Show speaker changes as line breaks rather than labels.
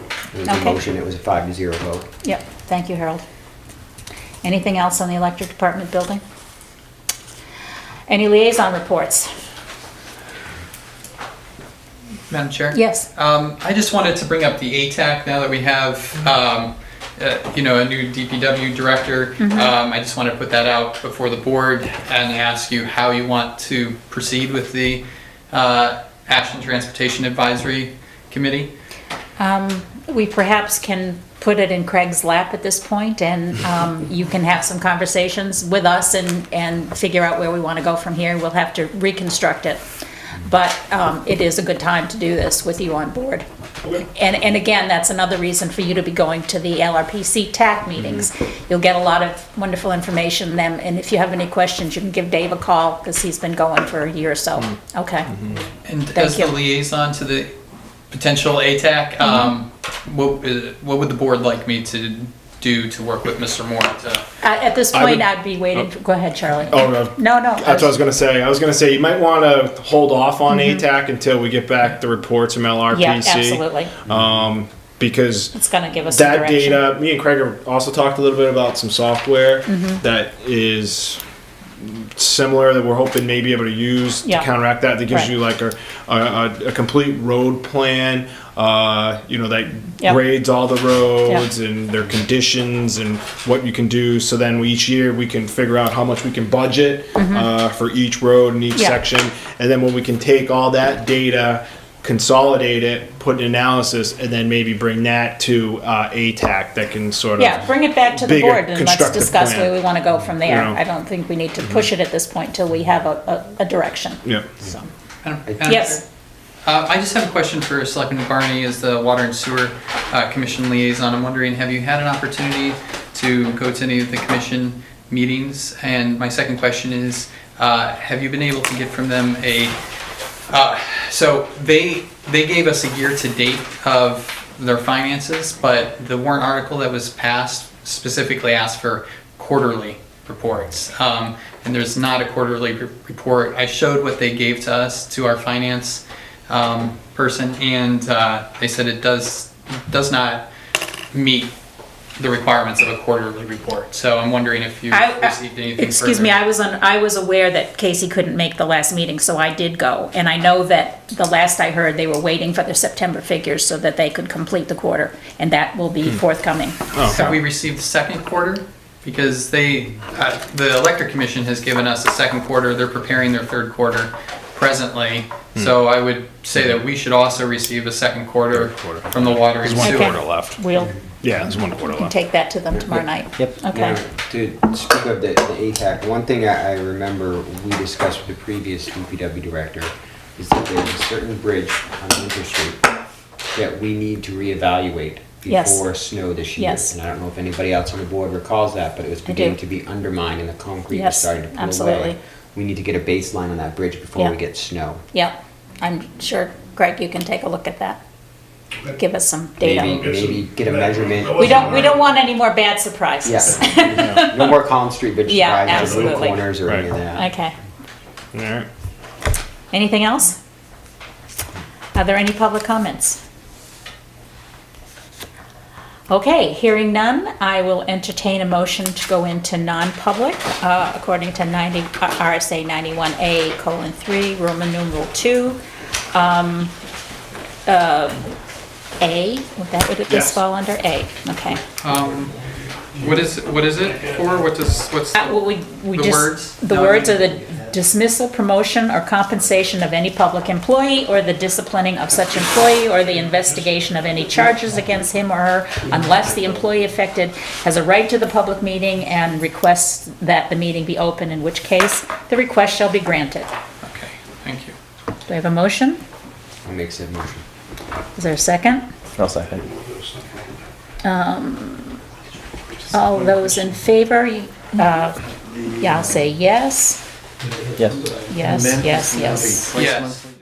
was a
Okay.
motion, it was a five to zero vote.
Yep, thank you, Harold. Anything else on the electric department building? Any liaison reports?
Madam Chair?
Yes.
Um, I just wanted to bring up the ATAC now that we have, um, uh, you know, a new DPW director.
Mm-hmm.
Um, I just want to put that out before the board and ask you how you want to proceed with the, uh, Ashland Transportation Advisory Committee.
Um, We perhaps can put it in Craig's lap at this point, and um, you can have some conversations with us and, and figure out where we want to go from here. We'll have to reconstruct it. But um, it is a good time to do this with you on board. And, and again, that's another reason for you to be going to the LRPC TAC
Mm-hmm.
meetings. You'll get a lot of wonderful information then, and if you have any questions, you can give Dave a call, because he's been going for a year or so.
Mm-hmm.
Okay.
And
Thank
as the
you. Mm-hmm.
liaison to the potential ATAC, um, what, uh, what would the board like me to do to work with Mr. Moore to
Uh, At this
I would-
point, I'd be waiting, for- go ahead, Charlie.
Oh, no.
No, no.
That's what I was gonna say. I was gonna say you might want to hold off on ATAC until we get back the reports from LRPC.
Mm-hmm. Yeah, absolutely.
Because
It's gonna give us some
that
direction.
data, uh, me and Craig have also talked a little bit about some software
Mm-hmm.
that is similar that we're hoping maybe able to use
Yeah.
to counteract that. That gives
Right.
you like a, a, a, a complete road plan. Uh, you know that
Yep.
grades all the roads and their conditions and what you can do. So then we, each year we can figure out how much we can budget uh, for each road and each
Mm-hmm. Yeah.
section. And then when we can take all that data, consolidate it, put an analysis, and then maybe bring that to uh, ATAC that can sort of.
Yeah, bring it back to the
bigger
board and let's
constructive
discuss
plan.
where we wanna go from there.
You know. Mm-hmm.
I don't think we need to push it at this point till we have a, a, a direction.
Yeah.
So,
Madam- Madam Chair?
Yes,
Uh, I just have a question for Selectman Barney as the Water and Sewer uh, Commission liaison. I'm wondering, have you had an opportunity to go to any of the commission meetings? And my second question is, uh, have you been able to get from them a, uh, so they, they gave us a year-to-date of their finances, but the warrant article that was passed specifically asked for quarterly reports. Um, And there's not a quarterly re- report. I showed what they gave to us, to our finance um, person, and uh, they said it does, does not meet the requirements of a quarterly report. So I'm wondering if you
I- I-
received anything further.
excuse me, I was on, I was aware that Casey couldn't make the last meeting, so I did go. And I know that the last I heard, they were waiting for their September figures so that they could complete the quarter, and that will
Hmm.
be forthcoming.
Oh,
Have we received the second quarter? Because they, uh, the electric commission has given us a second quarter, they're preparing their third quarter presently.
Hmm.
So I would say that we should also receive a second quarter from the water and
one
sewer.
quarter left. We'll
Yeah, there's one quarter
can
left.
take that to them tomorrow night.
Yep.
Okay.
Now, To speak of the, the ATAC, one thing I, I remember we discussed with the previous DPW director is that there's a certain bridge on Winter Street that we need to reevaluate
Yes.
before snow this year.
Yes.
And I don't know if anybody else on the board recalls that, but it was
do.
beginning to be undermined and the concrete was
Yes,
starting to pull away.
absolutely.
We need to get a baseline on that bridge before
Yeah.
we get snow.
Yep, I'm sure, Greg, you can take a look at that. Give us some
Maybe,
data.
maybe get a measurement.
We don't, we don't want any more bad surprises.
Yeah. No more Collins Street bridge
Yeah,
surprises, no
absolutely.
corners or any of
Right.
that.
Okay,
All right.
anything else? Are there any public comments? Okay, hearing none, I will entertain a motion to go into non-public uh, according to 90, uh, RSA 91A colon 3, Roman numeral 2. um, uh, A, would that, would this
Yes.
fall under A? Okay.
Um, What is, what is it for? What does, what's?
Uh, well, we, we
The
just.
words?
The
No,
words
I
are the dismissal, promotion, or compensation of any public employee, or the disciplining of such employee, or the investigation of any charges against him or her, unless the employee affected has a right to the public meeting and requests that the meeting be open, in which case the request shall be granted.
Okay, thank you.
Do I have a motion?
I'll make said motion.
Is there a second?
I'll second.
Um, All those in favor, you- uh, yeah, I'll say yes,
Yes.
yes, yes, yes.
Yes.